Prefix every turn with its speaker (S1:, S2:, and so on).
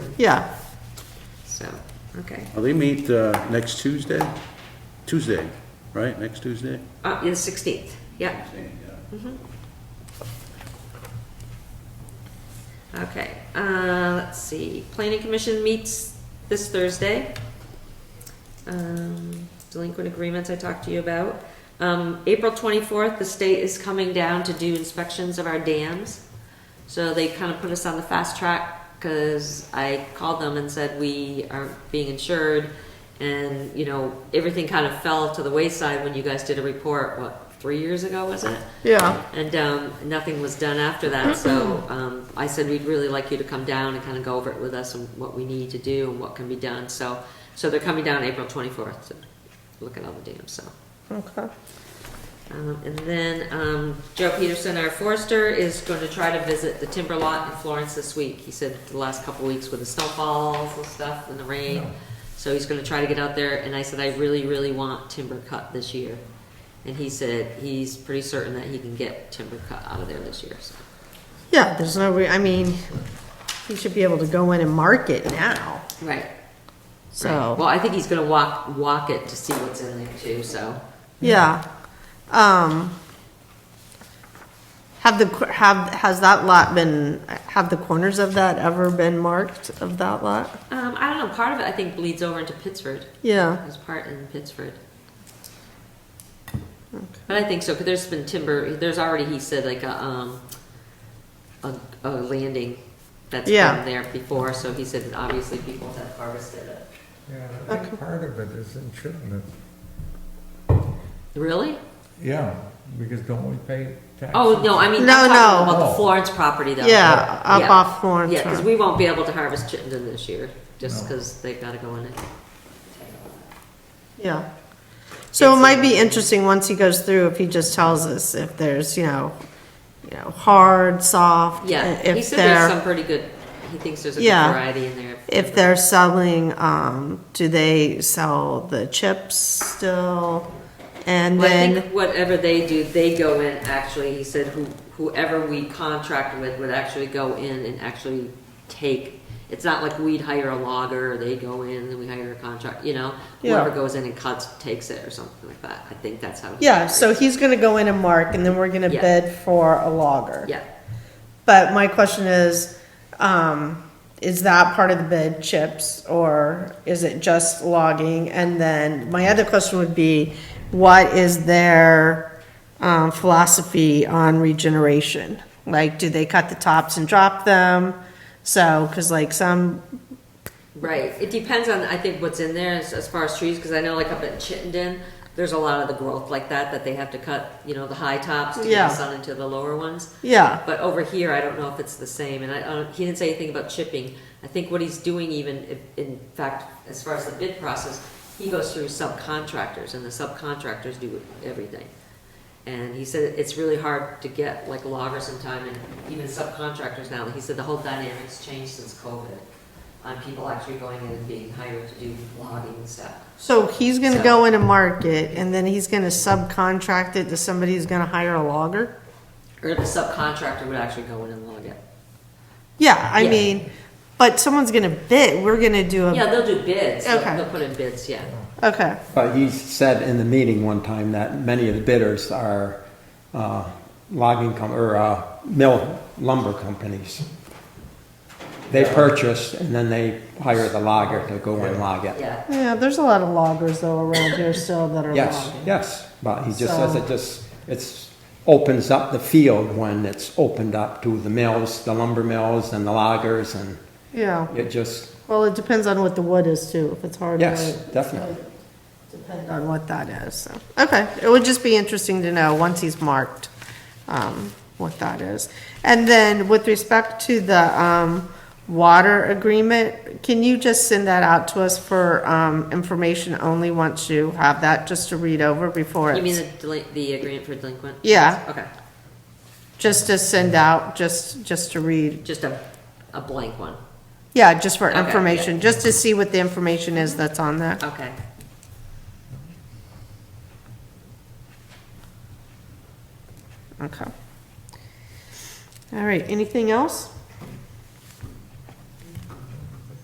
S1: Yeah. So, okay.
S2: Well, they meet uh, next Tuesday? Tuesday, right, next Tuesday?
S1: Uh, yeah, the sixteenth, yeah, okay. Uh, let's see, planning commission meets this Thursday. Um, delinquent agreements I talked to you about. Um, April twenty-fourth, the state is coming down to do inspections of our dams. So they kind of put us on the fast track, cause I called them and said we aren't being insured. And, you know, everything kind of fell to the wayside when you guys did a report, what, three years ago, was it?
S3: Yeah,
S1: And um, nothing was done after that, so um, I said, we'd really like you to come down and kind of go over it with us and what we need to do and what can be done, so, so they're coming down April 24th to look at all the dams, so.
S3: okay.
S1: Um, And then um, Joe Peterson, our forester, is going to try to visit the timber lot in Florence this week. He said the last couple weeks with the snowfalls and stuff and the rain, so he's going to try to get out there. And I said, I really, really want timber cut this year. And he said he's pretty certain that he can get timber cut out of there this year, so.
S3: Yeah, there's no, re- I mean, you should be able to go in and mark it now,
S1: Right. Well,
S3: so,
S1: I think he's going to walk, walk it to see what's in there too, so.
S3: yeah. Um, have the, cor- have, has that lot been, have the corners of that ever been marked of that lot?
S1: Um, I don't know, part of it I think bleeds over into Pittsford.
S3: Yeah,
S1: There's part in Pittsford. But I think so, because there's been timber, there's already, he said, like a, um, a, a landing that's
S3: Yeah.
S1: been there before, so he said that obviously people have harvested it.
S4: Yeah, I think part of it is insurance.
S1: Really?
S4: Yeah, because don't we pay taxes?
S1: Oh, no, I mean, I'm
S3: No,
S1: talking
S3: no.
S1: about the
S4: Oh.
S1: Florence property though.
S3: yeah, up
S1: Yeah.
S3: off Florence
S1: Yeah, because
S3: Road.
S1: we won't be able to harvest Chittenden this year, just
S4: No.
S1: because they've got to go in it.
S3: Yeah. So it might be interesting, once he goes through, if he just tells us if there's, you know, you know, hard, soft.
S1: Yeah, he
S3: if
S1: said there's
S3: they're,
S1: some pretty good, he thinks there's a good
S3: Yeah.
S1: variety in there.
S3: if they're selling, um, do they sell the chips still? And
S1: Well, I
S3: then,
S1: think whatever they do, they go in, actually, he said who- whoever we contract with would actually go in and actually take, it's not like we'd hire a logger, they go in and we hire a contract, you know? Whoever
S3: Yeah.
S1: goes in and cuts, takes it or something like that. I think that's how. he
S3: yeah, so
S1: operates.
S3: he's gonna go in and mark, and then we're gonna
S1: Yeah.
S3: bid for a logger.
S1: Yeah,
S3: But my question is, um, is that part of the bid chips or is it just logging? And then my other question would be, what is their um, philosophy on regeneration? Like, do they cut the tops and drop them? So, because like some,
S1: right. It depends on, I think, what's in there as, as far as trees, because I know like up at Chittenden, there's a lot of the growth like that, that they have to cut, you know, the high tops to
S3: Yeah.
S1: get the sun into the lower ones.
S3: yeah,
S1: But over here, I don't know if it's the same, and I, I don't- he didn't say anything about chipping. I think what he's doing even, if- in fact, as far as the bid process, he goes through subcontractors, and the subcontractors do everything. And he said it's really hard to get like loggers in time, and even subcontractors now, he said the whole dynamic's changed since COVID, on people actually going in and being hired to do logging and stuff.
S3: so he's gonna go in and mark it and then he's gonna subcontract it to somebody who's gonna hire a logger?
S1: Or the subcontractor would actually go in and log it.
S3: Yeah, I
S1: Yeah.
S3: mean, but someone's gonna bid, we're gonna do
S1: Yeah,
S3: a,
S1: they'll do bids, They'll-
S3: Um, Okay.
S1: they'll put in bids, yeah.
S3: okay.
S5: But he said in the meeting one time that many of the bidders are uh, logging com, or uh, mill lumber companies. They purchase and then they hire the logger to go and log it.
S1: Yeah,
S3: Yeah, there's a lot of loggers though around here still that are
S5: Yes,
S3: logging.
S5: yes, but he just says
S3: So-
S5: it just, it's, opens up the field when it's opened up to the mills, the lumber mills and the loggers and
S3: Yeah,
S5: it just,
S3: well, it depends on what the wood is too, if it's hard
S5: yes,
S3: wood,
S5: definitely.
S3: depend on what that is, so. Okay, it would just be interesting to know, once he's marked, um, what that is. And then with respect to the, um, water agreement, can you just send that out to us for, um, information only once you have that, just to read over before it's?
S1: You mean the, delin- the agreement for delinquent?
S3: Yeah.
S1: Okay,
S3: Just to send out, just, just to read,
S1: just a, a blank one,
S3: yeah, just for
S1: Okay, yeah.
S3: information, just to see what the information is that's on there.
S1: okay.
S3: Okay. All right, anything else?